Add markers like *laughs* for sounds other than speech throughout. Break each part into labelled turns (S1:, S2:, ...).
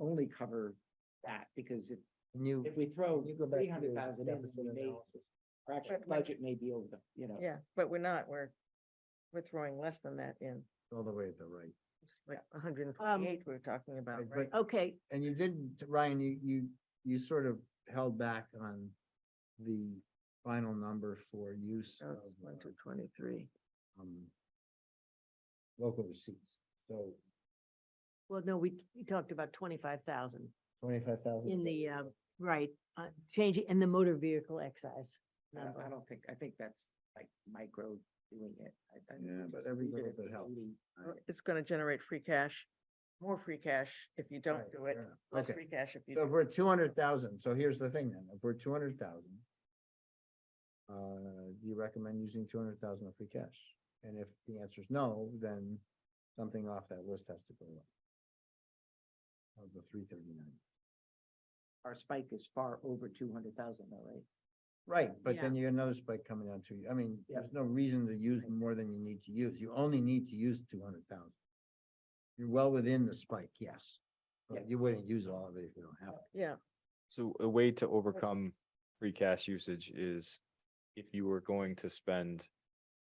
S1: only cover that, because if,
S2: And you,
S1: if we throw
S2: you go back
S1: three
S2: to
S1: hundred
S2: your
S1: thousand in,
S2: deficit
S1: we may,
S2: analysis.
S1: our actual
S3: But-
S1: budget may be over the, you know.
S3: Yeah, but we're not, we're, we're throwing less than that in,
S2: all the way at the right.
S3: It's like hundred and forty-eight we we're talking about,
S2: Right, but-
S3: right?
S4: Okay,
S2: And you did, Ryan, you, you, you sort of held back on the final number for use
S3: So
S2: of,
S3: it's one
S2: uh,
S3: to twenty-three.
S2: um, local receipts. So
S4: well, no, we, we talked about twenty-five thousand
S2: twenty-five thousand.
S4: in the, uh, right, uh, changing, and the motor vehicle excise.
S1: I don't- I
S4: number.
S1: don't think, I think that's like micro doing it. I- I
S2: Yeah,
S1: just
S2: but every
S1: leave it
S2: little
S1: at the
S2: bit helps.
S1: 80.
S3: Uh, It's gonna generate free cash, more free cash if you don't
S2: Right,
S3: do it,
S2: fair enough.
S3: less
S2: Okay.
S3: free cash if you.
S2: So if
S3: do.
S2: we're two hundred thousand, so here's the thing then, if we're two hundred thousand. Uh, do you recommend using two hundred thousand of free cash? And if the answer is no, then something off that list has to go up. Of the three thirty-nine,
S1: Our spike is far over two hundred thousand though, right?
S2: right, but then you get another spike coming down to you, I mean,
S1: Yeah.
S2: there's no reason to use more than you need to use, you only need to use two hundred thousand. You're well within the spike, yes,
S1: Yeah.
S2: but you wouldn't use all of it if you don't have it.
S3: Yeah,
S5: So a way to overcome free cash usage is if you were going to spend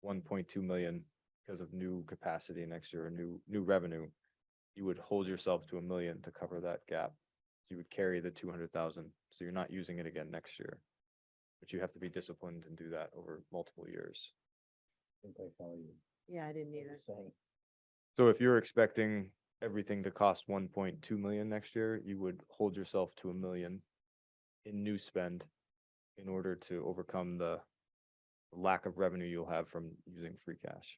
S5: one point two million because of new capacity next year, or new, new revenue, you would hold yourself to a million to cover that gap. You would carry the two hundred thousand, so you're not using it again next year. But you have to be disciplined and do that over multiple years.
S2: I think I follow you.
S4: Yeah, I didn't
S2: what
S4: either.
S2: you're saying.
S5: So if you're expecting everything to cost one point two million next year, you would hold yourself to a million in new spend in order to overcome the lack of revenue you'll have from using free cash.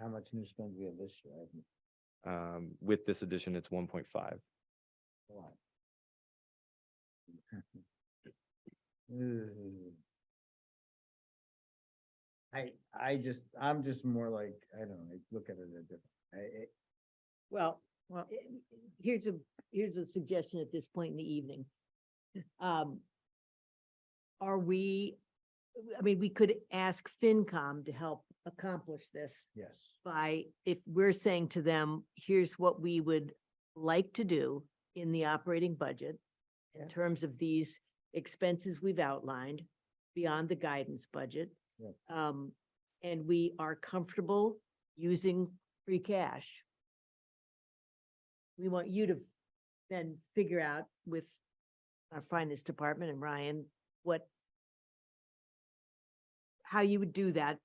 S2: How much new spend we have this year, I haven't
S5: Um, with this addition, it's one point five.
S2: a lot. Ugh. *laughs* I, I just, I'm just more like, I don't know, I look at it a different, I, it-
S4: Well,
S3: Well-
S4: eh, here's a, here's a suggestion at this point in the evening. Um, Are we, I mean, we could ask FinCom to help accomplish this
S2: yes,
S4: by, if we're saying to them, here's what we would like to do in the operating budget
S3: Yeah.
S4: in terms of these expenses we've outlined beyond the guidance budget.
S2: Right.
S4: Um, and we are comfortable using free cash. We want you to then figure out with our finance department and Ryan, what how you would do that,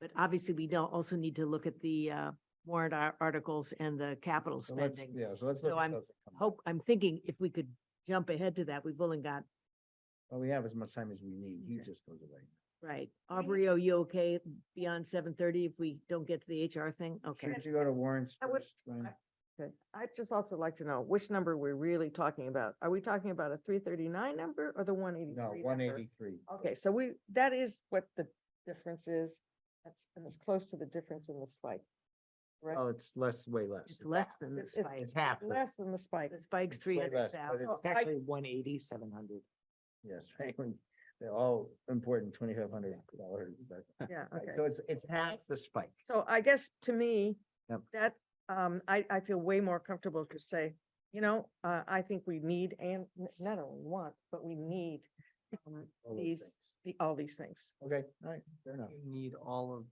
S4: but obviously we don't also need to look at the uh warrant ar- articles and the capital
S2: so let's,
S4: spending.
S2: yeah, so let's. look
S4: So
S2: at
S4: I'm
S2: those that come up.
S4: Hope, I'm thinking if we could jump ahead to that, we've only got,
S2: Well, we have as much time as we need, he
S4: Okay.
S2: just goes away.
S4: right, Aubrey, are you okay beyond seven thirty if we don't get to the HR thing? Okay,
S2: Should you go to warrants
S3: I would-
S2: first, Ryan?
S3: okay. I'd just also like to know which number we're really talking about. Are we talking about a three thirty-nine number or the one eighty-three?
S2: No, one eighty-three.
S3: Okay, so we, that is what the difference is. That's, and it's close to the difference in the spike. Correct?
S2: Oh, it's less, way less.
S4: it's less than the
S3: It's- it's-
S4: spike.
S2: It's half, the-
S3: Less than the spike.
S4: The spike's
S2: It's way
S4: three
S2: less, but
S4: hundred
S2: it's
S4: thousand. Oh,
S1: It's
S3: I-
S4: *laughs*
S1: actually one eighty, seven hundred.
S2: yes, *laughs* right, when they're all important, twenty-five hundred dollars, but.
S3: Yeah,
S2: Right,
S3: okay.
S2: So it's, it's half the spike.
S3: So I guess to me,
S2: Yep.
S3: that, um, I, I feel way more comfortable to say, you know, uh, I think we need and n- not only want, but we need um,
S2: all those
S3: these,
S2: things.
S3: the, all these things.
S2: Okay, all right, fair enough.
S1: You need all of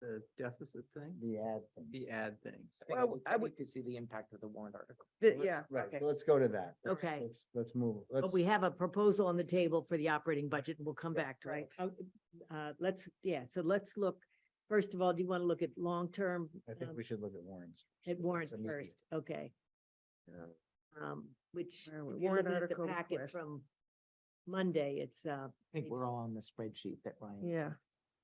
S1: the deficit things,
S2: The ad thing.
S1: the ad things.
S3: Well, I would-
S1: To see the impact of the warrant article.
S3: The-
S2: Let's-
S3: yeah,
S2: Right,
S3: okay.
S2: so let's go to that. Let's-
S4: Okay.
S2: let's- Let's move, let's,
S4: But we have a proposal on the table for the operating budget and we'll come back to it.
S3: right.
S4: Oh, Uh, let's, yeah, so let's look, first of all, do you want to look at long-term?
S2: I think
S4: um,
S2: we should look at warrants.
S4: At
S2: It's
S4: warrant
S2: immediate,
S4: first, okay,
S2: you know.
S4: um, which,
S3: Where are we?
S4: if you're
S3: Warrant
S4: looking at
S3: article
S4: the packet
S3: request.
S4: from Monday, it's, uh,
S1: I think we're all on the spreadsheet that Ryan.
S3: Yeah.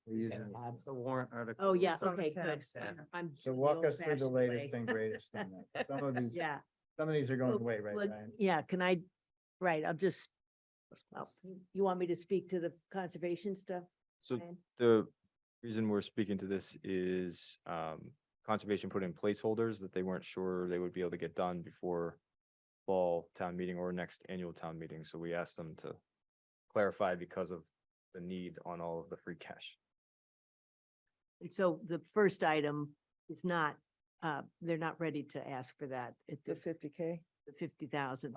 S2: We're using-
S1: the warrant article.
S4: oh, yeah,
S3: It's on
S4: okay, good.
S3: tabs there.
S4: I'm.
S2: So
S4: the
S2: walk us through the
S4: old-fashioned
S2: latest
S4: way.
S2: and greatest thing. then, 'cause Some
S4: *laughs*
S2: of these,
S4: Yeah,
S2: some of these are going
S4: Oh,
S2: away, right,
S4: well,
S2: Ryan?
S4: yeah, can I, right, I'll just, well, you want me to speak to the conservation stuff?
S5: So
S4: Ryan?
S5: the reason we're speaking to this is um conservation put in placeholders that they weren't sure they would be able to get done before fall town meeting or next annual town meeting. So we asked them to clarify because of the need on all of the free cash.
S4: And so the first item is not, uh, they're not ready to ask for that at
S3: The
S4: this,
S3: fifty K.
S4: the fifty thousand.